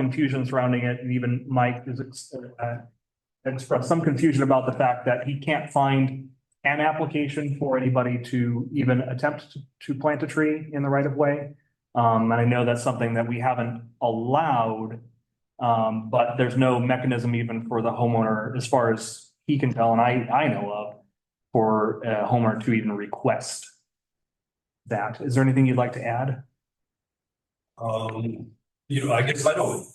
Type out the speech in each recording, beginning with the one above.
confusion surrounding it, and even Mike has ex- uh, expressed some confusion about the fact that he can't find an application for anybody to even attempt to- to plant a tree in the right of way. Um, and I know that's something that we haven't allowed. Um, but there's no mechanism even for the homeowner, as far as he can tell, and I, I know of, for a homeowner to even request that. Is there anything you'd like to add? Um, you know, I guess I don't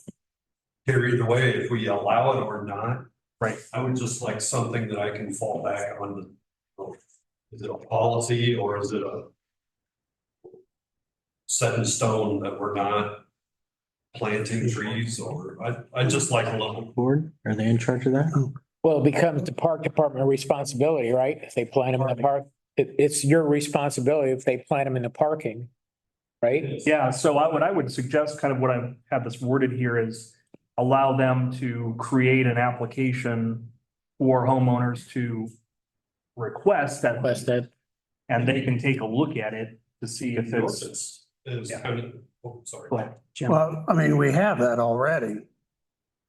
care either way if we allow it or not. Right. I would just like something that I can fall back on. Is it a policy or is it a set in stone that we're not planting trees or I, I just like a little, board? Are they in charge of that? Well, it becomes the park department responsibility, right? If they plant them in the park, it, it's your responsibility if they plant them in the parking, right? Yeah, so I, what I would suggest, kind of what I have this worded here is allow them to create an application for homeowners to request that, Plus that, and they can take a look at it to see if it's. It's, it's Yeah. kind of, oh, sorry. Go ahead. Well, I mean, we have that already.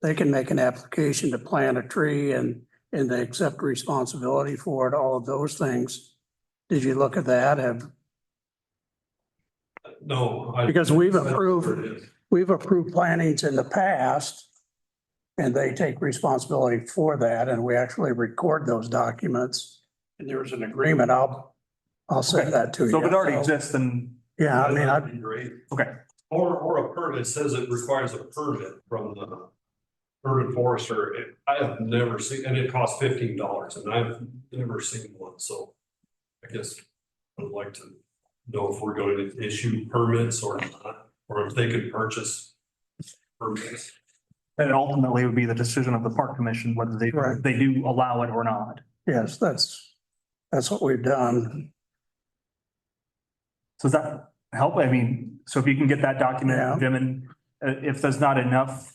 They can make an application to plant a tree and, and they accept responsibility for it, all of those things. Did you look at that? Have, No. I- Because we've that's where approved- it is. we've approved plantings in the past and they take responsibility for that and we actually record those documents. And there's an agreement. I'll, I'll send that to you. So if it already exists, then Yeah, I mean, I, That'd be Great. Okay. Or, or a permit says it requires a permit from the urban forester. It- I have never seen, and it costs fifteen dollars and I've never seen one, so. I guess I'd like to know if we're going to issue permits or not, or if they could purchase permits. then ultimately it would be the decision of the park commission whether they, Right. they do allow it or not. yes, that's, that's what we've done. So does that help? I mean, so if you can get that Yeah. document, Jim, and uh, if there's not enough,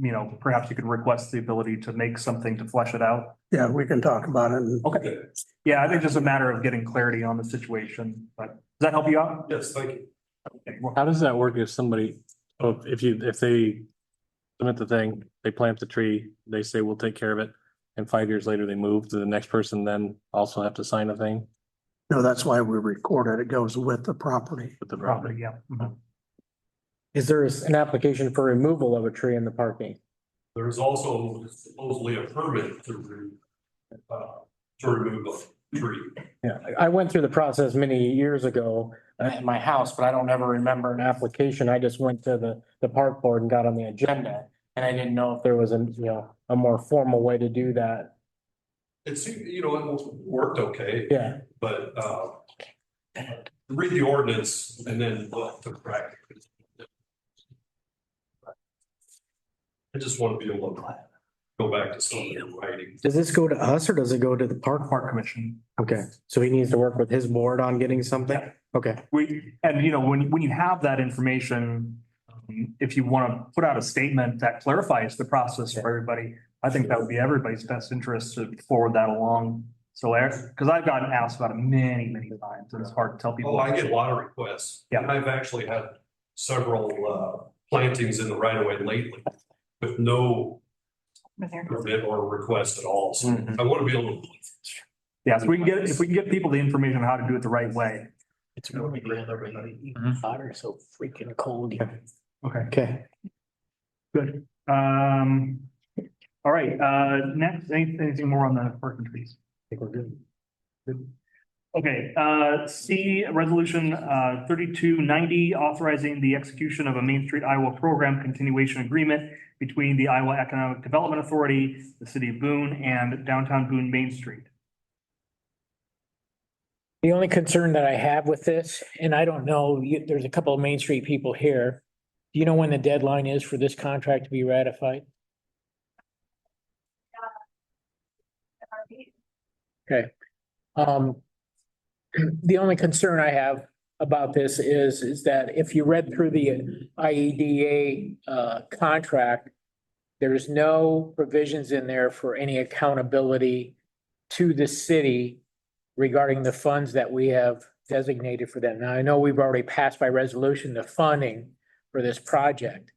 you know, perhaps you could request the ability to make something to flesh it out. Yeah, we can talk about it. and- Okay. Yeah, I think it's just a matter of getting clarity on the situation, but does that help you out? Yes, thank you. Okay, well, How does that work if somebody, oh, if you, if they submit the thing, they plant the tree, they say we'll take care of it. And five years later, they move to the next person, then also have to sign a thing No, that's why we record it. It goes with the property. with the property. Probably, yeah. Mhm. Is there an application for removal of a tree in the parking? There's also supposedly a permit to, re- uh, to remove a tree. Yeah, I- I went through the process many years ago uh, at my house, but I don't ever remember an application. I just went to the, the park board and got on the agenda. And I didn't know if there was a, you know, a more formal way to do that. It seemed, you know, it worked okay. Yeah, But uh. Read the ordinance and then look to practice. I just want to be able to go back to something in writing. does this go to us or does it go to the park? Park Commission. Okay, so he needs to work with his board on getting something? Yeah. Okay, We, and you know, when, when you have that information, um, if you want to put out a statement that clarifies the process for everybody, I think that would be everybody's best interest to forward that along. So, because I've gotten asked about it many, many times, and it's hard to tell people. Oh, I get a lot of requests. Yeah. And I've actually had several uh plantings in the right of way lately with no permit or request at all. Mm. So I want to be able to. Yeah, so we can get, if we can get people the information on how to do it the right way. it's really real, everybody, even hotter, so freaking cold. Okay. okay. Good. Um, all right, uh, next, any- anything more on the parking trees? I think we're good. Good. Okay, uh, C, resolution, uh, thirty-two ninety, authorizing the execution of a Main Street Iowa program continuation agreement between the Iowa Economic Development Authority, the city of Boone, and downtown Boone Main Street. The only concern that I have with this, and I don't know, you, there's a couple of Main Street people here. Do you know when the deadline is for this contract to be ratified? Um, the only concern I have about this is, is that if you read through the IEDA, uh, contract, there's no provisions in there for any accountability to the city regarding the funds that we have designated for them. Now, I know we've already passed by resolution the funding for this project,